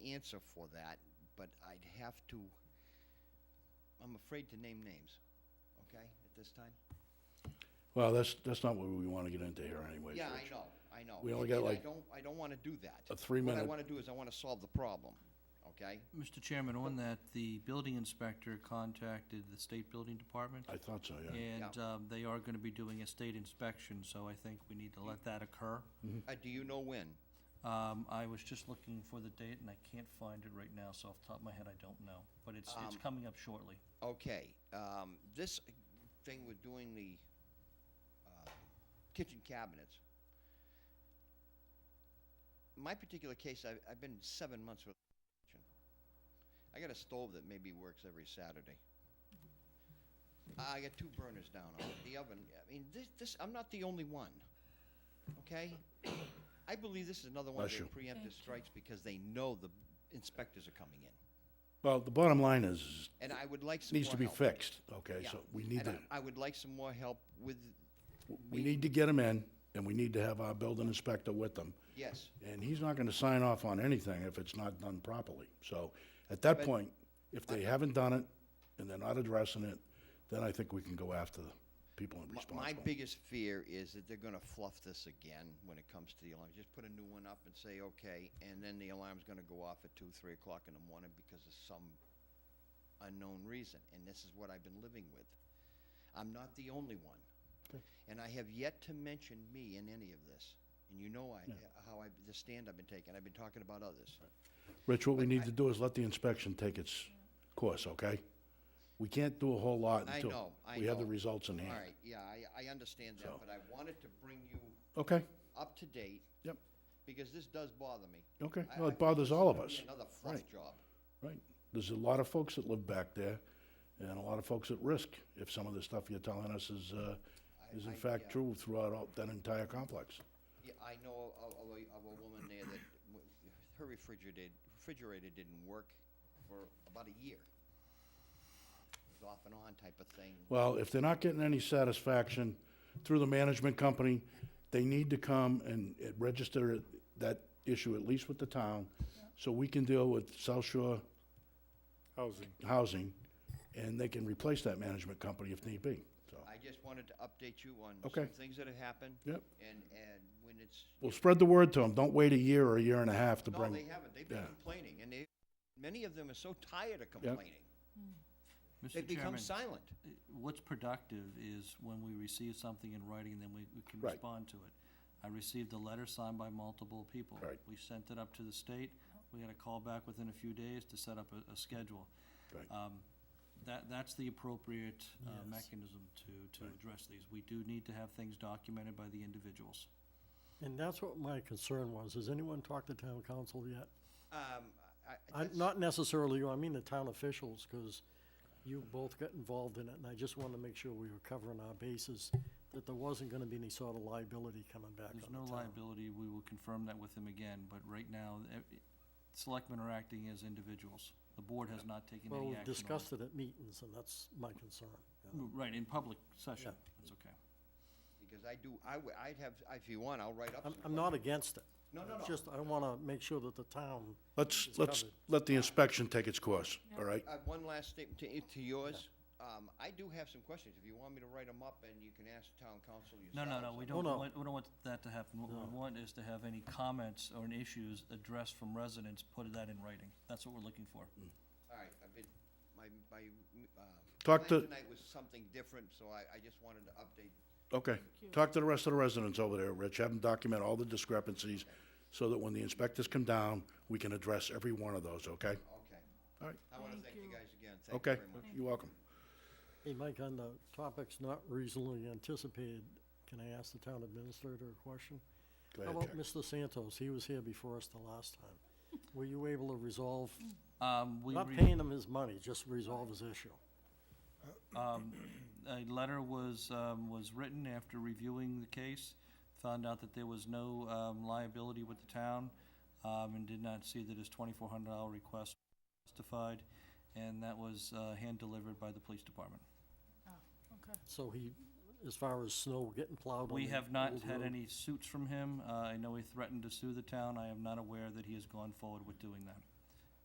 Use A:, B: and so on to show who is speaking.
A: answer for that, but I'd have to, I'm afraid to name names, okay, at this time?
B: Well, that's, that's not what we want to get into here anyway.
A: Yeah, I know, I know.
B: We
A: And-
B: only got
A: and I
B: like
A: don't, I don't wanna do that.
B: a three
A: What I
B: minute-
A: wanna do is I wanna solve the problem, okay?
C: Mr. Chairman, on that, the building inspector contacted the state building department,
B: I thought so, yeah.
C: and um, they are going to be doing a state inspection, so I think we need to let that occur.
B: Mm-hmm.
A: Uh, do you know when?
C: Um, I was just looking for the date, and I can't find it right now, so off the top of my head, I don't know, but it's, it's coming up shortly.
A: Okay, um, this thing with doing the, uh, kitchen cabinets. My particular case, I've, I've been seven months with kitchen. I got a stove that maybe works every Saturday. I got two burners down on it, the oven, I mean, this, this, I'm not the only one, okay? I believe this is another one of
B: Bless
A: their
B: you.
A: preemptive strikes because they know the inspectors are coming in.
B: Well, the bottom line is,
A: And I would like
B: it
A: some
B: needs
A: more
B: to be
A: help.
B: fixed, okay?
A: Yeah,
B: So we need
A: and I-
B: to,
A: I would like some more help with,
B: we need to get them in, and we need to have our building inspector with them.
A: yes,
B: And he's not going to sign off on anything if it's not done properly. So at that point, if they haven't done it and they're not addressing it, then I think we can go after the people
A: My- my
B: responsible.
A: biggest fear is that they're gonna fluff this again when it comes to the alarm. Just put a new one up and say, okay, and then the alarm's gonna go off at two, three o'clock in the morning because of some unknown reason, and this is what I've been living with. I'm not the only one. And I have yet to mention me in any of this, and you know I, how I, the stand I've been taking, I've been talking about others.
B: Rich, what we need to do is let the inspection take its course, okay? We can't do a whole lot
A: I
B: until
A: know, I
B: we have the
A: know.
B: results in
A: All
B: hand.
A: right, yeah, I, I understand that,
B: So-
A: but I wanted to bring you
B: Okay,
A: up to date,
B: yep,
A: because this does bother me.
B: okay.
A: I- I
B: Well, it
A: think
B: bothers
A: this is
B: all of
A: gonna be
B: us.
A: Another fluff
B: Right.
A: job.
B: Right. There's a lot of folks that live back there, and a lot of folks at risk if some of the stuff you're telling us is, uh, is in
A: I-
B: fact
A: yeah.
B: true throughout all- that entire complex.
A: Yeah, I know of, of a, of a woman there that, w- her refrigerator, refrigerator didn't work for about a year. It was off and on type of thing.
B: Well, if they're not getting any satisfaction through the management company, they need to come and uh, register it- that issue at least with the town, so we can deal with South Shore
D: Housing.
B: Housing, and they can replace that management company if need be, so.
A: I just wanted to update you on
B: Okay.
A: some things that have happened.
B: Yep.
A: And, and when it's,
B: We'll spread the word to them. Don't wait a year or a year and a half to
A: no,
B: bring.
A: they haven't, they've been
B: yeah.
A: complaining, and they, many of them are so tired of complaining. They've
C: Mr.
A: become
C: Chairman,
A: silent.
C: uh, what's productive is when we receive something in writing, and then we we can
B: Right.
C: respond to it. I received a letter signed by multiple people.
B: Right.
C: We sent it up to the state. We had a call back within a few days to set up a, a schedule.
B: Right.
C: Um, That, that's the appropriate uh, mechanism to, to address these. We do need to have things documented by the individuals.
D: And that's what my concern was. Has anyone talked to town council yet?
A: Um, I,
D: I,
A: that's-
D: not necessarily you, I mean the town officials, because you both got involved in it, and I just wanted to make sure we were covering our bases, that there wasn't gonna be any sort of liability coming back
C: There's
D: on
C: no
D: the town.
C: liability, we will confirm that with them again, but right now, e- selectmen are acting as individuals. The board has not taken
D: Well,
C: any action on
D: we've
C: it.
D: discussed it at meetings, and that's my concern. yeah.
C: Right, in public session,
D: Yeah.
C: that's okay.
A: Because I do, I would, I'd have, if you want, I'll write up some.
D: I'm, I'm not against it.
A: No, no,
D: It's
A: no.
D: Just, I wanna make sure that the town,
B: Let's,
D: It's
B: let's
D: covered.
B: let the inspection take its course, all right?
A: Uh, one last statement to, to yours. Um, I do have some questions. If you want me to write them up, and you can ask town council
C: No,
A: yourself.
C: no, no, we
D: Oh,
C: don't
D: no.
C: want, we don't want that to happen. What we want is to have any comments or any issues addressed from residents, put that in writing. That's what we're looking for.
A: All right, I've been, my, my, um.
B: Talk
A: plan
B: to-
A: Tonight was something different, so I, I just wanted to update.
B: Okay. Talk to the rest of the residents over there, Rich. Have them document all the discrepancies so that when the inspectors come down, we can address every one of those, okay?
A: Okay.
B: All right,
A: I want to thank you guys again. Thank you
B: okay.
A: very much.
B: You're welcome.
D: hey, Mike, on the topics not reasonably anticipated, can I ask the town administrator a question?
B: Go
D: How
B: ahead,
D: about
B: Jack.
D: Mr. Santos? He was here before us the last time. Were you able to resolve,
C: Um, we.
D: Mm. not
C: re-
D: paying him his money, just resolve his issue?
C: Um, a letter was, um, was written after reviewing the case, found out that there was no, um, liability with the town, um, and did not see that his twenty-four hundred dollar request was justified, and that was, uh, hand-delivered by the police department.
E: Okay.
D: So he, as far as snow getting plowed on
C: We
D: the
C: have not
D: old
C: had
D: road,
C: any suits from him. Uh, I know he threatened to sue the town. I am not aware that he has gone forward with doing that.